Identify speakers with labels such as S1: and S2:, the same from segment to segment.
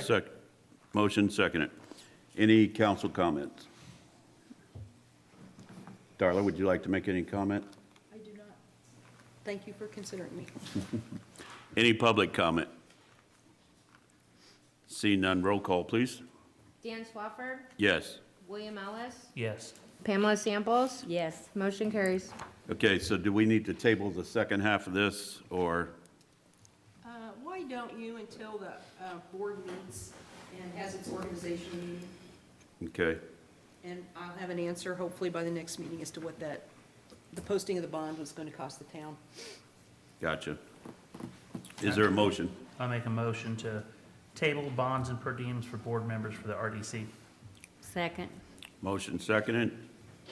S1: Second, motion seconded. Any council comments? Darla, would you like to make any comment?
S2: I do not. Thank you for considering me.
S1: Any public comment? See none, roll call, please.
S3: Dan Swafford,
S1: Yes.
S3: William Ellis,
S4: Yes.
S3: Pamela Samples.
S2: Yes.
S3: Motion carries.
S1: Okay, so do we need to table the second half of this, or,
S2: Uh, Why don't you until the uh, board meets and has its organization meeting?
S1: okay,
S2: And I'll have an answer hopefully by the next meeting as to what that, the posting of the bond was going to cost the town.
S1: gotcha. Is there a motion?
S4: I make a motion to table bonds and per diems for board members for the RDC.
S5: Second,
S1: Motion seconded,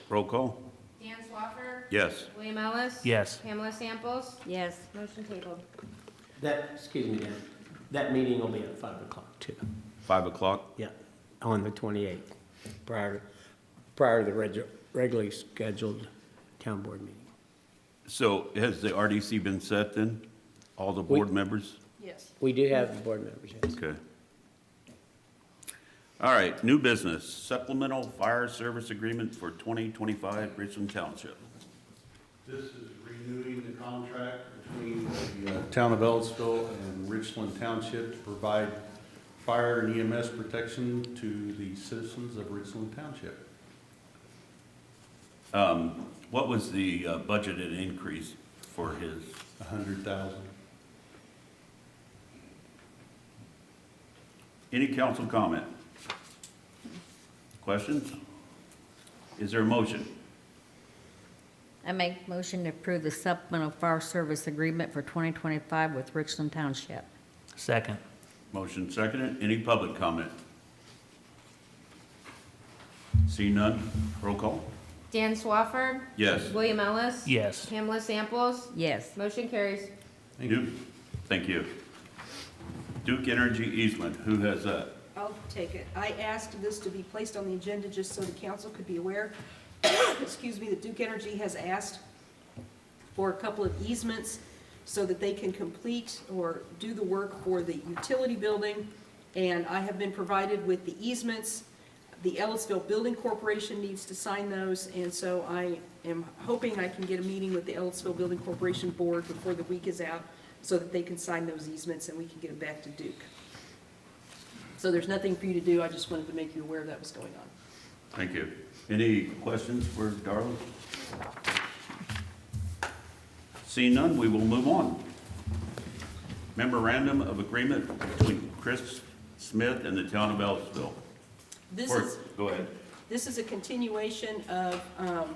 S1: roll call?
S3: Dan Swafford.
S1: Yes.
S3: William Ellis.
S4: Yes.
S3: Pamela Samples.
S5: yes.
S3: Motion tabled.
S6: That, excuse me, Dan, that meeting will be at five o'clock too.
S1: Five o'clock?
S6: Yeah, on the twenty-eighth, prior, prior to the regu- regularly scheduled town board meeting.
S1: So has the RDC been set then? All the board
S6: We-
S1: members?
S2: Yes.
S6: We do have the board members, yes.
S1: Okay. All right, new business, supplemental fire service agreement for 2025 Richland Township.
S7: This is renewing the contract between the uh, Town of Ellisville and Richland Township to provide fire and EMS protection to the citizens of Richland Township.
S1: Um, What was the uh, budgeted increase for his?
S7: A hundred thousand.
S1: Any council comment? Questions? Is there a motion?
S5: I make motion to approve the supplemental fire service agreement for 2025 with Richland Township.
S4: Second.
S1: Motion seconded. Any public comment? See none? Roll call?
S3: Dan Swafford.
S1: Yes.
S3: William Ellis.
S4: Yes.
S3: Pamela Samples.
S5: Yes,
S3: Motion carries.
S7: Thank you.
S1: Duke- Thank you. Duke Energy easement, who has that?
S2: I'll take it. I asked this to be placed on the agenda just so the council could be aware. Excuse me, that Duke Energy has asked for a couple of easements so that they can complete or do the work for the utility building. And I have been provided with the easements. The Ellisville Building Corporation needs to sign those, and so I am hoping I can get a meeting with the Ellisville Building Corporation Board before the week is out so that they can sign those easements and we can get them back to Duke. So there's nothing for you to do, I just wanted to make you aware that was going on.
S1: Thank you. Any questions for Darla? Seeing none, we will move on. Memorandum of Agreement between Chris Smith and the Town of Ellisville.
S2: This
S1: Or-
S2: is,
S1: Go ahead.
S2: this is a continuation of um,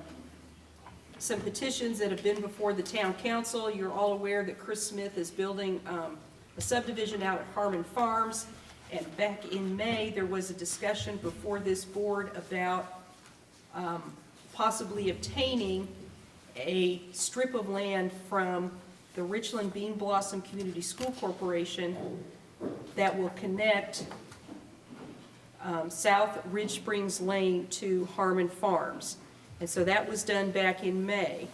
S2: some petitions that have been before the town council. You're all aware that Chris Smith is building um, a subdivision out at Harmon Farms. And back in May, there was a discussion before this board about um, possibly obtaining a strip of land from the Richland Bean Blossom Community School Corporation that will connect um, South Ridge Springs Lane to Harmon Farms. And so that was done back in May.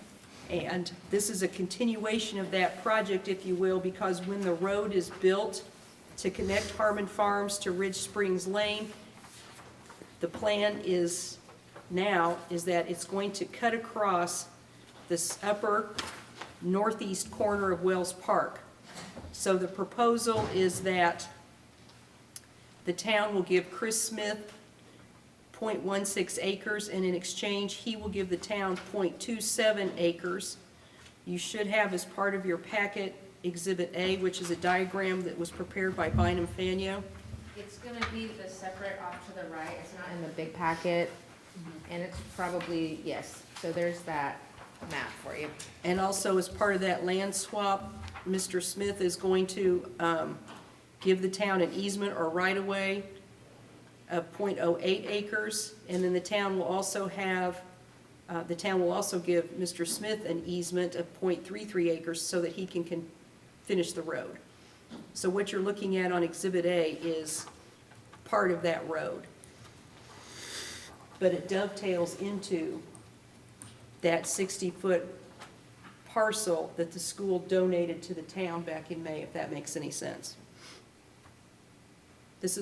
S2: And this is a continuation of that project, if you will, because when the road is built to connect Harmon Farms to Ridge Springs Lane, the plan is now, is that it's going to cut across this upper northeast corner of Wells Park. So the proposal is that the town will give Chris Smith .16 acres, and in exchange, he will give the town .27 acres. You should have as part of your packet Exhibit A, which is a diagram that was prepared by Bynum Fanyo.
S3: It's gonna be the separate off to the right. It's not in the big packet. And it's probably, yes, so there's that map for you.
S2: And also, as part of that land swap, Mr. Smith is going to um, give the town an easement or right-of-way of .08 acres, and then the town will also have, uh, the town will also give Mr. Smith an easement of .33 acres so that he can can finish the road. So what you're looking at on Exhibit A is part of that road. But it dovetails into that 60-foot parcel that the school donated to the town back in May, if that makes any sense.